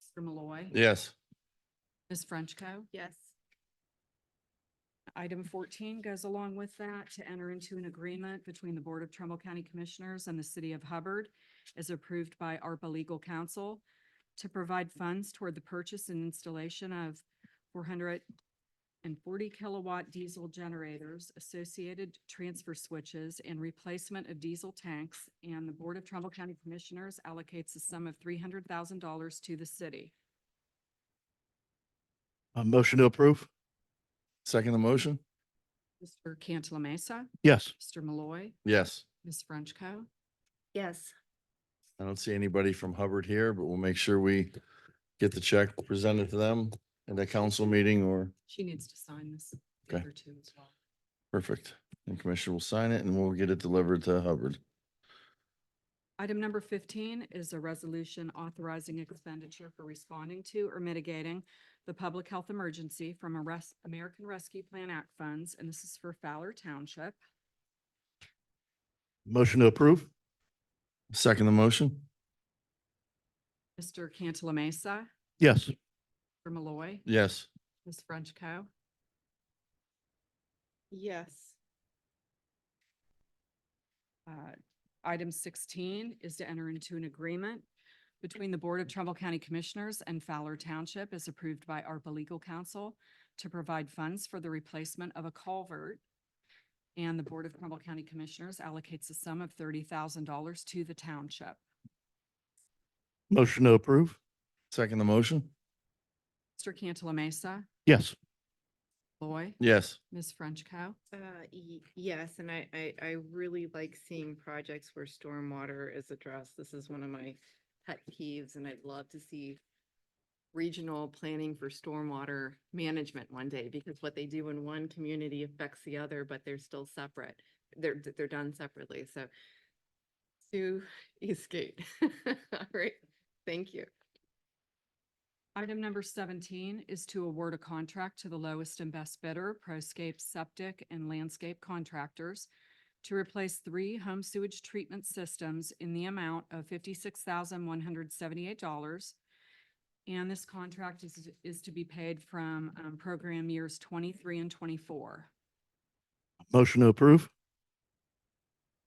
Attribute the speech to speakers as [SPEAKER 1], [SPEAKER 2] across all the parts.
[SPEAKER 1] Mr. Malloy.
[SPEAKER 2] Yes.
[SPEAKER 1] Ms. Frenchco.
[SPEAKER 3] Yes.
[SPEAKER 1] Item fourteen goes along with that to enter into an agreement between the Board of Trumbull County Commissioners and the City of Hubbard as approved by ARPA Legal Counsel to provide funds toward the purchase and installation of four hundred and forty kilowatt diesel generators, associated transfer switches, and replacement of diesel tanks. And the Board of Trumbull County Commissioners allocates a sum of three hundred thousand dollars to the city.
[SPEAKER 2] A motion to approve? Second the motion?
[SPEAKER 1] Mr. Cantala Mesa,
[SPEAKER 2] Yes.
[SPEAKER 1] Mr. Malloy,
[SPEAKER 2] Yes.
[SPEAKER 1] Ms. Frenchco.
[SPEAKER 3] Yes.
[SPEAKER 2] I don't see anybody from Hubbard here, but we'll make sure we get the check presented to them in the council meeting or,
[SPEAKER 1] She needs to sign this.
[SPEAKER 2] Okay.
[SPEAKER 1] paper too as well.
[SPEAKER 2] perfect. And Commissioner will sign it and we'll get it delivered to Hubbard.
[SPEAKER 1] Item number fifteen is a resolution authorizing expenditure for responding to or mitigating the public health emergency from a res- American Rescue Plan Act funds, and this is for Fowler Township.
[SPEAKER 2] Motion to approve? Second the motion?
[SPEAKER 1] Mr. Cantala Mesa,
[SPEAKER 2] Yes.
[SPEAKER 1] Mr. Malloy,
[SPEAKER 2] Yes.
[SPEAKER 1] Ms. Frenchco.
[SPEAKER 3] Yes.
[SPEAKER 1] Uh, Item sixteen is to enter into an agreement between the Board of Trumbull County Commissioners and Fowler Township as approved by ARPA Legal Counsel to provide funds for the replacement of a culvert. And the Board of Trumbull County Commissioners allocates a sum of thirty thousand dollars to the township.
[SPEAKER 2] Motion to approve? Second the motion?
[SPEAKER 1] Mr. Cantala Mesa,
[SPEAKER 2] Yes.
[SPEAKER 1] Loy,
[SPEAKER 2] Yes.
[SPEAKER 1] Ms. Frenchco.
[SPEAKER 3] Uh, y- yes, and I, I, I really like seeing projects where stormwater is addressed. This is one of my pet peeves and I'd love to see regional planning for stormwater management one day because what they do in one community affects the other, but they're still separate. They're, d- they're done separately, so Sue Eastgate. All right, thank you.
[SPEAKER 1] Item number seventeen is to award a contract to the lowest and best bidder, Proscape Septic and Landscape Contractors, to replace three home sewage treatment systems in the amount of fifty-six thousand one hundred seventy-eight dollars. And this contract is, is to be paid from, um, program years twenty-three and twenty-four.
[SPEAKER 2] Motion to approve?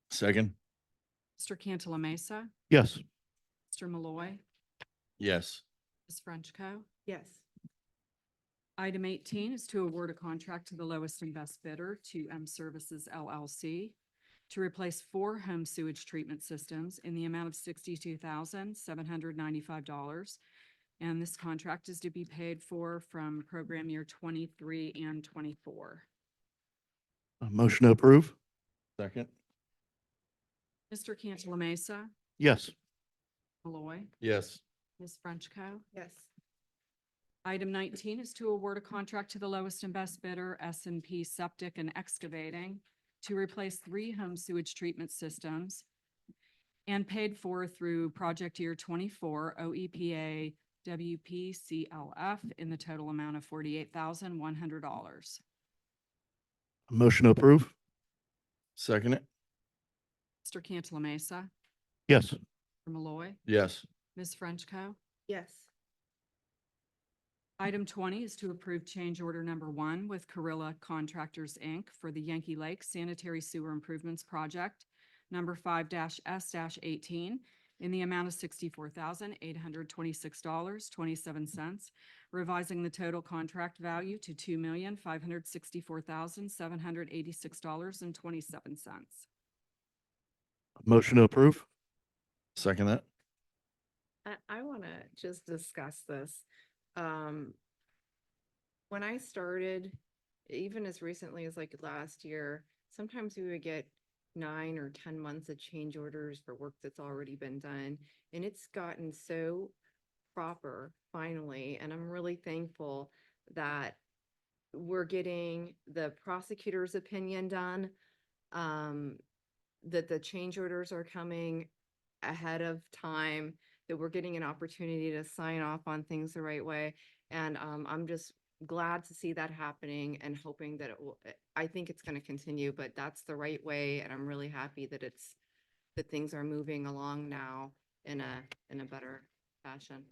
[SPEAKER 2] Second?
[SPEAKER 1] Mr. Cantala Mesa,
[SPEAKER 2] Yes.
[SPEAKER 1] Mr. Malloy,
[SPEAKER 2] Yes.
[SPEAKER 1] Ms. Frenchco.
[SPEAKER 3] Yes.
[SPEAKER 1] Item eighteen is to award a contract to the lowest and best bidder to M Services LLC to replace four home sewage treatment systems in the amount of sixty-two thousand, seven hundred ninety-five dollars. And this contract is to be paid for from program year twenty-three and twenty-four.
[SPEAKER 2] Motion to approve? Second?
[SPEAKER 1] Mr. Cantala Mesa,
[SPEAKER 2] Yes.
[SPEAKER 1] Malloy,
[SPEAKER 2] Yes.
[SPEAKER 1] Ms. Frenchco.
[SPEAKER 3] Yes.
[SPEAKER 1] Item nineteen is to award a contract to the lowest and best bidder, S and P Septic and Excavating, to replace three home sewage treatment systems and paid for through project year twenty-four E OEPA WPCLF in the total amount of forty-eight thousand one hundred dollars.
[SPEAKER 2] Motion to approve? Second it?
[SPEAKER 1] Mr. Cantala Mesa,
[SPEAKER 2] Yes.
[SPEAKER 1] Mr. Malloy,
[SPEAKER 2] Yes.
[SPEAKER 1] Ms. Frenchco.
[SPEAKER 3] Yes.
[SPEAKER 1] Item twenty is to approve change order number one with Carrilla Contractors, Inc. for the Yankee Lake Sanitary Sewer Improvements Project, number five S eighteen, in the amount of sixty-four thousand, eight hundred twenty-six dollars, twenty-seven cents, revising the total contract value to two million, five hundred sixty-four thousand, seven hundred eighty-six dollars and twenty-seven cents.
[SPEAKER 2] Motion to approve? Second that?
[SPEAKER 3] I, I want to just discuss this. Um, when I started, even as recently as like last year, sometimes we would get nine or ten months of change orders for work that's already been done. And it's gotten so proper finally, and I'm really thankful that we're getting the prosecutor's opinion done. Um, that the change orders are coming ahead of time that we're getting an opportunity to sign off on things the right way. And um, I'm just glad to see that happening and hoping that it will, eh, I think it's going to continue, but that's the right way. And I'm really happy that it's, that things are moving along now in a, in a better fashion.